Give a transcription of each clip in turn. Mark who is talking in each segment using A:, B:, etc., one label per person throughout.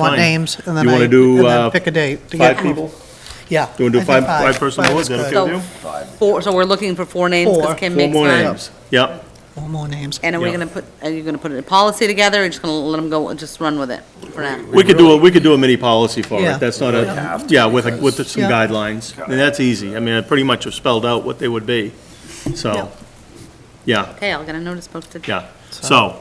A: want
B: Fine.
A: names, and then
B: You
A: I,
B: wanna
A: and
B: do, uh,
A: then pick a date. to get
B: Five
A: them.
B: people?
A: Yeah.
B: You want to
A: I
B: do
A: think
B: five, five person
A: Five
B: board, is
A: is
B: that
A: good.
B: okay with you?
C: So, four, so we're looking for four names,
A: Four.
C: because Kim
B: Four
C: makes
B: more
C: nine.
B: names, yep.
A: Four more names.
C: And are we
B: Yeah.
C: gonna put, are you gonna put a policy together, or just gonna let them go, just run with it for now?
B: We could do, a we could do a mini policy for
A: Yeah.
B: it, that's not a, yeah, with, a- with some
A: Yeah.
B: guidelines, and that's easy, I mean, I pretty much have spelled out what they would be, so, yeah,
C: Okay, I'll get a notice posted.
B: yeah. So,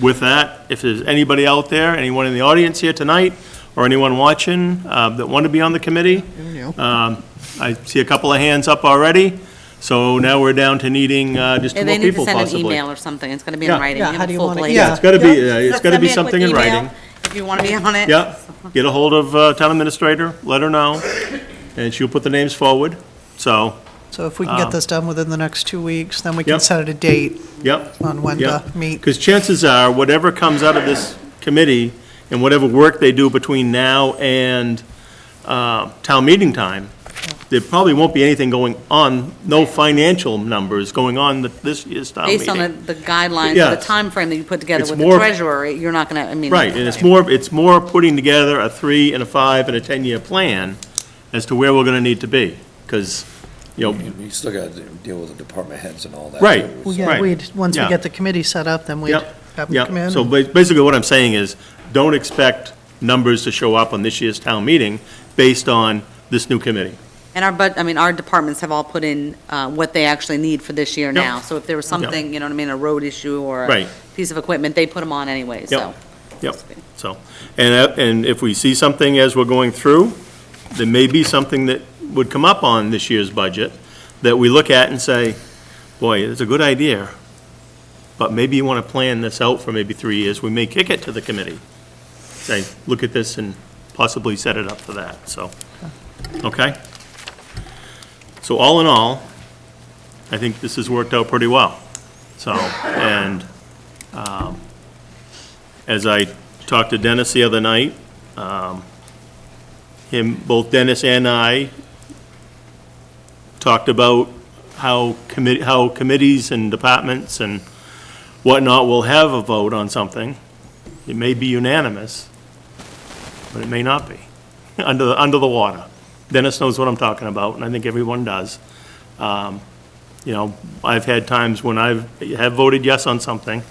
B: with that, if there's anybody out there, anyone in the audience here tonight, or anyone watching, uh, that want to be on the committee,
A: You.
B: um, I see a couple of hands up already, so now we're down to needing, uh, just two
C: And
B: more
C: they need to
B: people
C: send an
B: possibly.
C: email or something, it's gonna be
B: Yeah.
C: in writing,
A: Yeah,
C: give
A: how
C: them
A: do you
C: full
A: want it?
C: plate.
A: Yeah.
B: It's gotta be,
A: Yeah.
B: uh, it's gotta be
C: Send me a quick
B: something in
C: email
B: writing.
C: If you wanna be on it.
B: Yeah, get a hold of uh, town administrator, let her know, and she'll put the names forward. So,
A: So if we can get this done within the next two weeks, then we can
B: uh, Yep.
A: set a date
B: yep,
A: on when to
B: yep.
A: meet.
B: Because chances are, whatever comes out of this committee and whatever work they do between now and uh, town meeting time, there probably won't be anything going on, no financial numbers going on th- this year's town
C: Based on the
B: meeting.
C: the guidelines, or the
B: Yes.
C: time frame that you put together
B: It's
C: with the
B: more-
C: treasurer, you're not gonna, I mean.
B: Right, and it's more, it's more putting together a three and a five and a 10-year plan as to where we're going to need to be. Because, you know,
D: You still got to deal with the department heads and all that.
B: Right.
D: too,
A: Well,
D: so-
A: yeah,
B: Right.
A: we'd, once we
B: Yeah.
A: get the committee set up, then we'd
B: Yep.
A: have them come
B: Yeah, so
A: in.
B: ba- basically what I'm saying is, don't expect numbers to show up on this year's town meeting based on this new committee.
C: And our, but, I mean, our departments have all put in uh, what they actually need for this year now. So if there was something, you know what I mean, a road issue or a
B: Right.
C: piece of equipment, they put them on anyway, so.
B: Yep, yep. So, and, uh, and if we see something as we're going through, there may be something that would come up on this year's budget that we look at and say, boy, it's a good idea, but maybe you want to plan this out for maybe three years. We may kick it to the committee. Say, look at this and possibly set it up for that, so, okay? So all in all, I think this has worked out pretty well. So, and as I talked to Dennis the other night, um, him, both Dennis and I talked about how commit, how committees and departments and whatnot will have a vote on something. It may be unanimous, but it may not be, under, the under the water. Dennis knows what I'm talking about, and I think everyone does. Um, You know, I've had times when I've, have voted yes on something,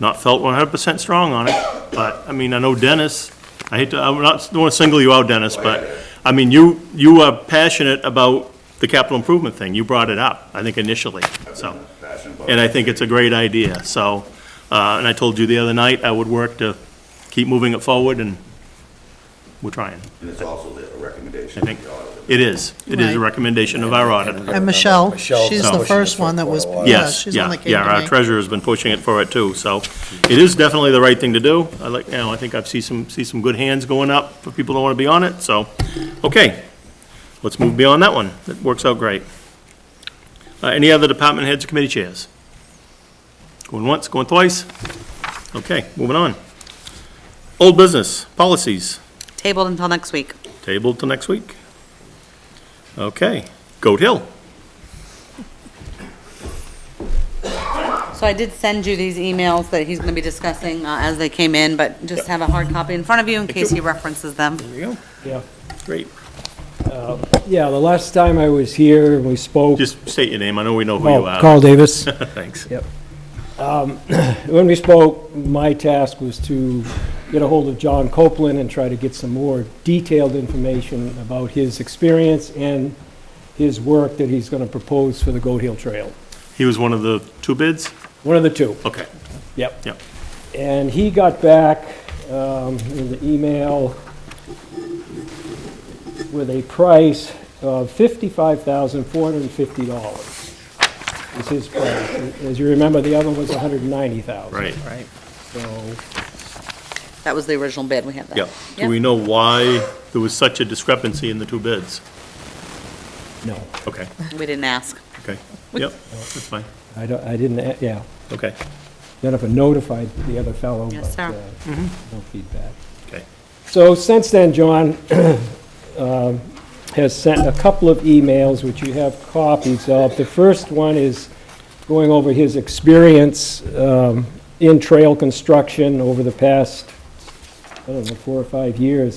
B: not felt one hundred percent strong on it, but, I mean, I know Dennis, I hate to, I'm not, don't wanna single you out, Dennis, but, I mean, you, you are passionate about the capital improvement thing, you brought it up, I think initially, so. And I think it's a great idea, so, uh, and I told you the other night, I would work to keep moving it forward, and we're trying,
E: And it's also the recommendation.
B: I think. It is, it is a
A: Right.
B: recommendation of our auditor.
A: And Michelle,
D: Michelle's
A: she's
D: been
A: the
D: pushing
A: first
D: this for
A: one that
D: quite
A: was,
D: a while.
A: yeah,
B: Yes,
A: Uh, she's the one
B: yeah,
A: that came
B: yeah, our
A: to me.
B: treasurer's been pushing it for it too, so it is definitely the right thing to do. I like, you know, I think I've seen some, see some good hands going up for people that want to be on it, so, okay. Let's move beyond that one. That works out great. Uh, any other department heads or committee chairs? Going once, going twice? Okay, moving on. Old business, policies,
C: Tabled until next week.
B: tabled till next week. Okay, Goat Hill.
C: So I did send you these emails that he's going to be discussing uh, as they came in, but just have a hard copy in front of you in case he references them.
B: There you go.
F: Yeah,
B: Great.
F: yeah, the last time I was here, we spoke,
B: Just state your name. I know we know who you
F: oh,
B: are.
F: Carl Davis.
B: Thanks.
F: When we spoke, my task was to get a hold of John Copeland and try to get some more detailed information about his experience and his work that he's gonna propose for the Goat Hill Trail.
B: He was one of the two bids?
F: One of the two,
B: Okay,
F: yep.
B: yeah.
F: And he got back um, in the email with a price of $55,450 is his price. As you remember, the other was $190,000.
B: Right,
F: So
C: That was the original bid, we have that.
B: yeah. Do we know why there was such a discrepancy in the two bids?
F: No,
B: Okay,
C: We didn't ask.
B: okay, yep, that's fine,
F: I don't, I didn't, a- yeah.
B: okay,
F: Jennifer notified the other fellow,
C: Yes,
F: but uh,
C: sir. Mm-hmm.
F: no feedback.
B: okay.
F: So since then, John um, has sent a couple of emails, which you have copies of. The first one is going over his experience um, in trail construction over the past I don't know, four or five years